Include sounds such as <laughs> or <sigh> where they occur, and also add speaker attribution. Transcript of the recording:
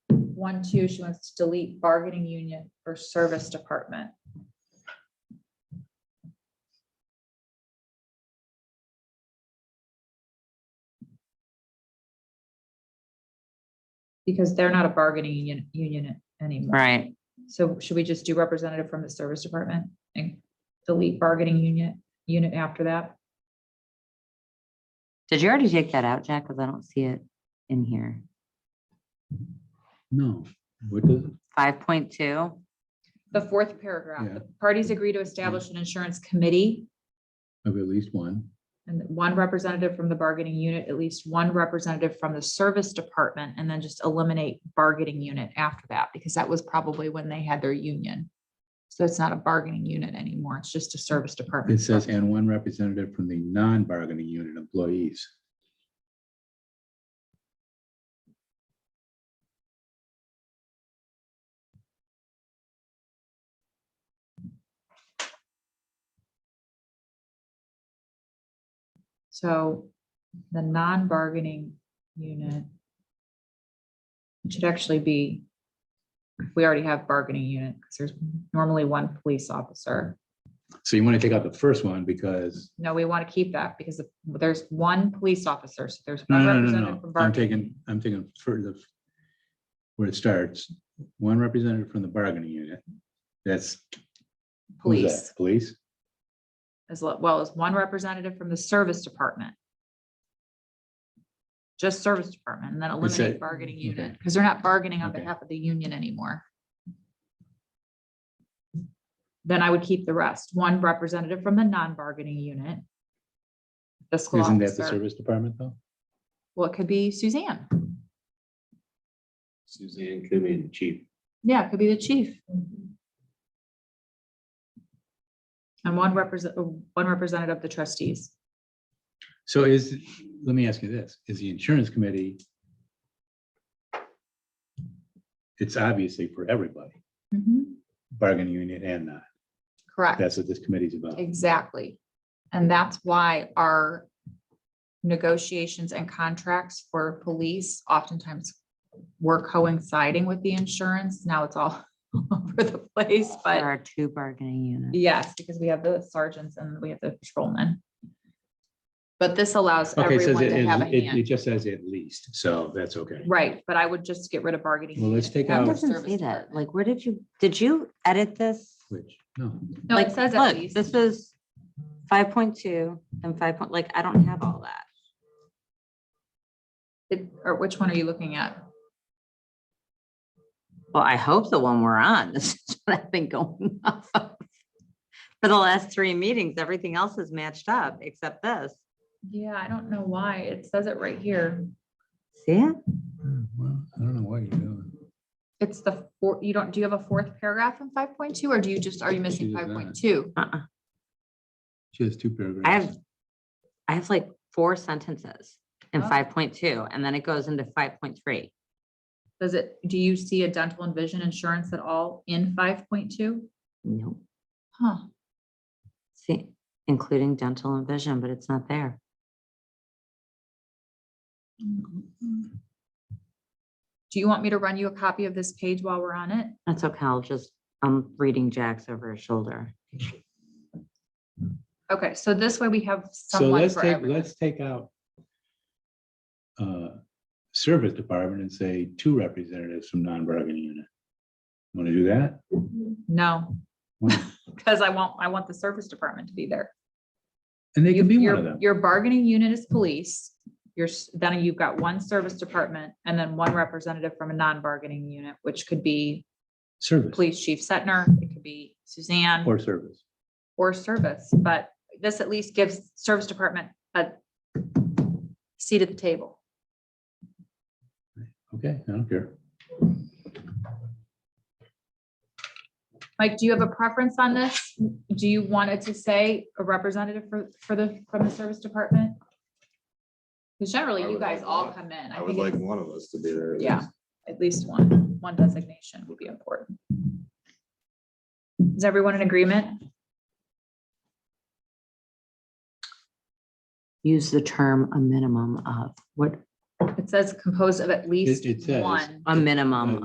Speaker 1: one, two, she wants to delete bargaining union or service department. Because they're not a bargaining union, union anymore.
Speaker 2: Right.
Speaker 1: So should we just do representative from the service department and delete bargaining unit, unit after that?
Speaker 2: Did you already take that out, Jack? Because I don't see it in here.
Speaker 3: No, what does,
Speaker 2: Five point two.
Speaker 1: The fourth paragraph,
Speaker 3: Yeah.
Speaker 1: the parties agree to establish an insurance committee
Speaker 3: of at least one,
Speaker 1: and one representative from the bargaining unit, at least one representative from the service department, and then just eliminate bargaining unit after that, because that was probably when they had their union. So it's not a bargaining unit anymore. It's just a service department.
Speaker 3: it says, and one representative from the non-bargaining unit employees.
Speaker 1: So the non-bargaining unit. It should actually be, we already have bargaining unit, because there's normally one police officer.
Speaker 3: So you want to take out the first one because,
Speaker 1: No, we want to keep that because if- there's one police officer, so there's.
Speaker 3: no,
Speaker 1: one
Speaker 3: no, no, no,
Speaker 1: representative
Speaker 3: no,
Speaker 1: from
Speaker 3: I'm
Speaker 1: bargaining
Speaker 3: taking, I'm taking for the, where it starts, one representative from the bargaining unit. That's. who's
Speaker 1: Police,
Speaker 3: that? Police,
Speaker 1: as lo- well as one representative from the service department. Just service department, and then eliminate
Speaker 3: said-
Speaker 1: bargaining
Speaker 3: okay.
Speaker 1: unit, because they're not bargaining on
Speaker 3: Okay.
Speaker 1: behalf of the union anymore. Then I would keep the rest, one representative from the non-bargaining unit. Fiscal
Speaker 3: isn't that the
Speaker 1: officer,
Speaker 3: service department though?
Speaker 1: well, it could be Suzanne,
Speaker 4: Suzanne could be the chief.
Speaker 1: yeah, it could be the chief. And one represent, uh, one representative of the trustees,
Speaker 3: So is, let me ask you this, is the insurance committee? It's obviously for everybody, bargaining unit and not.
Speaker 1: correct?
Speaker 3: That's what this committee's about.
Speaker 1: Exactly. And that's why our negotiations and contracts for police oftentimes were coinciding with the insurance. Now it's all <laughs> over the place,
Speaker 2: There
Speaker 1: but
Speaker 2: are two bargaining units.
Speaker 1: yes, because we have the sergeants and we have the patrolmen. But this allows
Speaker 3: Okay, it says
Speaker 1: everyone
Speaker 3: it,
Speaker 1: to have a
Speaker 3: it- it it
Speaker 1: hand.
Speaker 3: just says at least, so that's okay.
Speaker 1: Right, but I would just get rid of bargaining.
Speaker 3: Well, let's
Speaker 1: unit
Speaker 3: take
Speaker 1: and
Speaker 2: That
Speaker 3: out-
Speaker 1: the
Speaker 2: doesn't
Speaker 1: service
Speaker 2: say that.
Speaker 1: department.
Speaker 2: Like, where did you, did you edit this?
Speaker 3: Which, no,
Speaker 1: No, it
Speaker 2: Like,
Speaker 1: says at
Speaker 2: look,
Speaker 1: least.
Speaker 2: This was five point two and five point, like, I don't have all that.
Speaker 1: It- Or which one are you looking at?
Speaker 2: Well, I hope the one we're on, <laughs> this is what I've been going <laughs> off of. For the last three meetings, everything else is matched up except this.
Speaker 1: Yeah, I don't know why. It says it right here.
Speaker 2: See it?
Speaker 3: Hmm, well, I don't know what you're doing.
Speaker 1: It's the four, you don't, do you have a fourth paragraph in five point two, or do you just, are you missing
Speaker 3: She does
Speaker 1: five
Speaker 3: not.
Speaker 1: point two?
Speaker 2: Uh-uh.
Speaker 3: She has two
Speaker 2: I
Speaker 3: paragraphs.
Speaker 2: have, I have like four sentences in
Speaker 1: Oh.
Speaker 2: five point two, and then it goes into five point three.
Speaker 1: Does it, do you see a dental and vision insurance at all in five point two?
Speaker 2: Nope.
Speaker 1: Huh,
Speaker 2: See, including dental and vision, but it's not there.
Speaker 1: do you want me to run you a copy of this page while we're on it?
Speaker 2: That's okay. I'll just, I'm reading Jack's over his shoulder.
Speaker 1: Okay, so this way we have
Speaker 3: So
Speaker 1: someone
Speaker 3: let's
Speaker 1: for
Speaker 3: take,
Speaker 1: everyone.
Speaker 3: let's take out uh, service department and say two representatives from non-bargaining unit. Want to do that?
Speaker 1: No,
Speaker 3: One-
Speaker 1: because I want, I want the service department to be there.
Speaker 3: And they can be one
Speaker 1: Your-
Speaker 3: of them.
Speaker 1: Your bargaining unit is police, your, s- then you've got one service department, and then one representative from a non-bargaining unit, which could be
Speaker 3: Service
Speaker 1: Police Chief Setner, it could be Suzanne
Speaker 3: or service.
Speaker 1: or Service, but this at least gives Service Department a seat at the table.
Speaker 3: Okay, I don't care.
Speaker 1: Mike, do you have a preference on this? Do you want it to say a representative for, for the, from the Service Department? Because generally,
Speaker 4: I
Speaker 1: you
Speaker 4: would
Speaker 1: guys
Speaker 4: like
Speaker 1: all
Speaker 4: one.
Speaker 1: come in.
Speaker 4: I would
Speaker 1: think
Speaker 4: like
Speaker 1: it's-
Speaker 4: one of us to be there. at
Speaker 1: Yeah.
Speaker 4: least.
Speaker 1: At least one, one designation would be important. Is everyone in agreement?
Speaker 2: Use the term a minimum of, what,
Speaker 1: It says composed of at least
Speaker 3: it says-
Speaker 1: one.
Speaker 2: a minimum